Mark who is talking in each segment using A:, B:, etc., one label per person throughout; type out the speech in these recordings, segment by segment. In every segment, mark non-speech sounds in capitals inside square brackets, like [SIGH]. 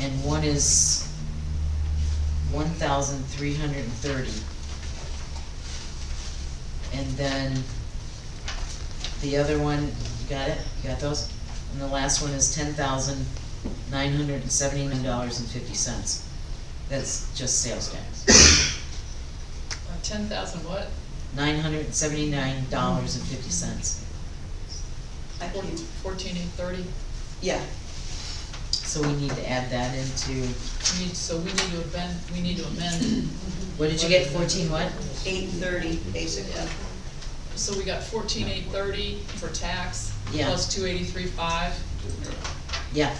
A: and one is one thousand three hundred and thirty. And then the other one, you got it? You got those? And the last one is ten thousand nine hundred and seventy-nine dollars and fifty cents. That's just sales tax.
B: Uh, Ten thousand what?
A: Nine hundred and seventy-nine dollars and fifty cents.
C: I
B: Fourteen,
C: think,
B: fourteen eight thirty?
C: yeah,
A: So we need to add that into,
B: We need, so we need to amend, we need to
C: [COUGHS]
B: amend,
A: what did you get, fourteen what?
C: eight thirty, basically.
B: so we got fourteen eight thirty for tax,
A: Yeah.
B: plus two eighty-three five.
A: Yeah,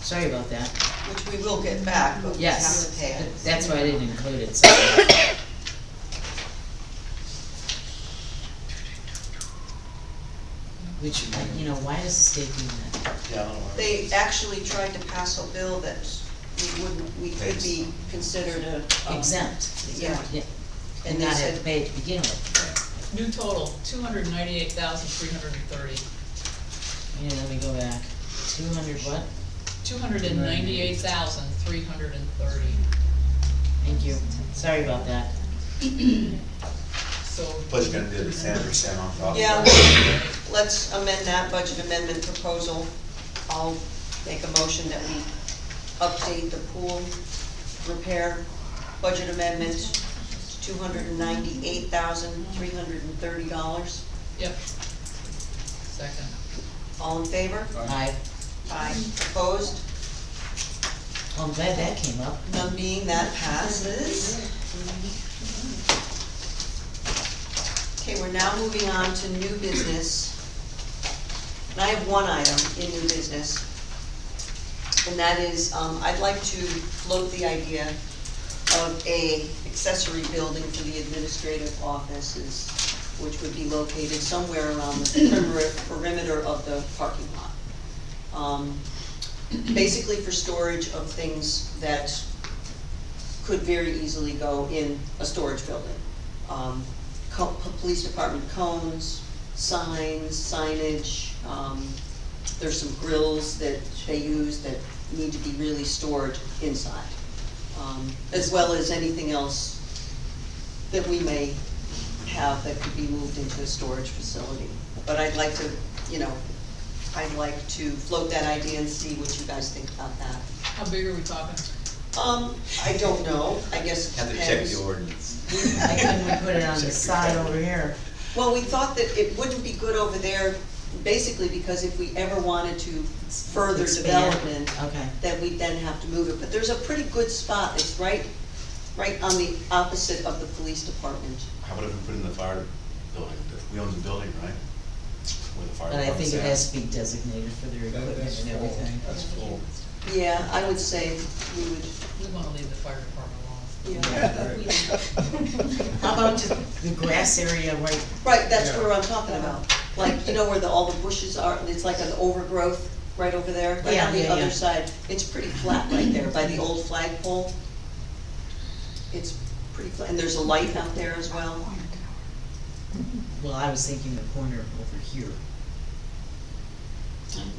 A: sorry about that.
C: Which we will get back, but we have to
A: Yes,
C: pay
A: th-
C: it.
A: that's why I didn't include it, so. Which, you know, why does the state do that?
D: Yeah, I don't know.
C: They actually tried to pass a bill that we wouldn't, we could be considered a. um,
A: Exempt,
C: Yeah,
A: yeah,
C: and
A: and
C: they
A: not have to
C: said,
A: pay it to begin with.
B: New total, two hundred ninety-eight thousand three hundred and thirty.
A: Yeah, let me go back. Two hundred what?
B: Two hundred and ninety-eight thousand three hundred and thirty.
A: Thank you. Sorry about that.
B: So,
D: But you're gonna do the seven percent off. off.
C: yeah, let's amend that budget amendment proposal. I'll make a motion that we update the pool repair budget amendment, two hundred and ninety-eight thousand, three hundred and thirty dollars.
B: yep. Second.
C: All in favor?
A: I,
C: Aye. Opposed?
A: well, I'm glad that came up.
C: None being that passes. Okay, we're now moving on to new business. And I have one item in new business. And that is, um, I'd like to float the idea of a accessory building for the administrative offices, which would be located somewhere around the perimeter- perimeter of the parking lot. Um, basically for storage of things that could very easily go in a storage building. Um, co- po- police department cones, signs, signage, um, there's some grills that they use that need to be really stored inside. Um, as well as anything else that we may have that could be moved into a storage facility. But I'd like to, you know, I'd like to float that idea and see what you guys think about that.
B: How big are we talking?
C: Um, I don't know, I guess it
D: Have to
C: depends.
D: check the ordinance.
A: I couldn't we put it
D: [LAUGHS]
A: on the side over here.
C: Well, we thought that it wouldn't be good over there, basically because if we ever wanted to further
A: Expand.
C: development,
A: Okay,
C: then we'd then have to move it, but there's a pretty good spot, it's right, right on the opposite of the police department.
D: How about if we put in the fire building, we own the building, right? Where the fire
A: but I think
D: department's
A: it
D: at.
A: has to be designated for their
E: That-
A: equipment
E: that's
A: and
E: full.
A: everything.
D: That's full.
C: Yeah, I would say we would,
B: We wanna leave the fire department alone.
C: yeah,
A: How about just the grass area right,
C: right, that's
E: Yeah.
C: where I'm talking about, like, you know where the, all the bushes are, and it's like an overgrowth right over there, right
A: Yeah,
C: on the
A: yeah, yeah.
C: other side, it's pretty flat right there, by the old flagpole. It's pretty flat, and there's a light out there as well.
A: well, I was thinking the corner over here.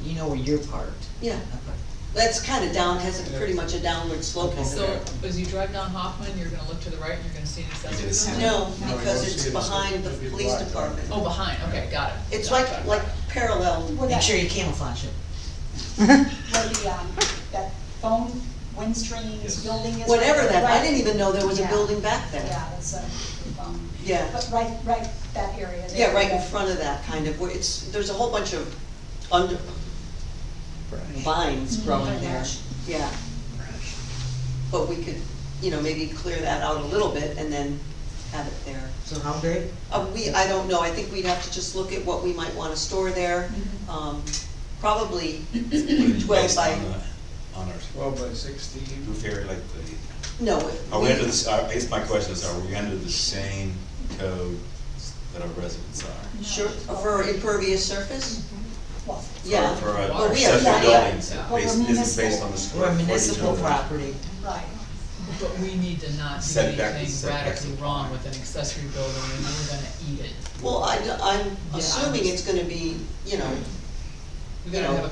A: You know where you're parked.
C: Yeah,
A: Okay.
C: that's kind of down, has a pretty much a downward slope over
B: So,
C: there.
B: as you drive down Hoffman, you're gonna look to the right and you're gonna see an accessory
D: Yes.
B: building?
C: No,
E: No,
C: because
E: you
C: it's
E: see it, it's
C: behind the
E: gonna be
C: police
E: black.
C: department.
B: Oh, behind, okay, got it.
C: It's
B: Got it,
C: like,
B: got it,
C: like
B: got it.
C: parallel.
F: Where
A: Make
F: that,
A: sure you camouflage it.
F: where the, um, that phone,
D: Yes.
F: Windstream's building is.
C: Whatever that, I
F: Right.
C: didn't even know there was a
F: Yeah.
C: building back there.
F: Yeah, that's a, um,
C: Yeah,
F: but right, right, that area there.
C: yeah, right in
F: that-
C: front of that, kind of, where it's, there's a whole bunch of under, vines growing there, yeah. But we could, you know, maybe clear that out a little bit and then have it there.
A: So how big?
C: Uh, we, I don't know, I think we'd have to just look at what we might wanna store there,
F: Mm-hmm.
C: um, probably twelve
D: Based
C: by,
D: on the- On our
E: Twelve by sixteen,
D: roof area, like the,
C: no.
D: are we under this, I guess my question is, are we under the same code that our residents are?
C: Sure, for impervious surface,
F: Well,
C: yeah.
D: For our
B: Well,
D: our
B: we
C: have
D: accessory
C: that,
D: buildings,
B: yeah.
D: it based-
F: Well, we're
D: this is based
F: municipal.
D: on the square
A: We're a
D: footage.
A: municipal
D: of the-
A: property.
F: right,
B: But we need to not do
D: Setback is
B: anything
D: setback.
B: radically wrong with an accessory building, and we're gonna eat it.
C: Well, I, am
B: Yeah.
C: assuming it's gonna be, you know,
B: We
C: You
B: gotta
C: know,
B: have a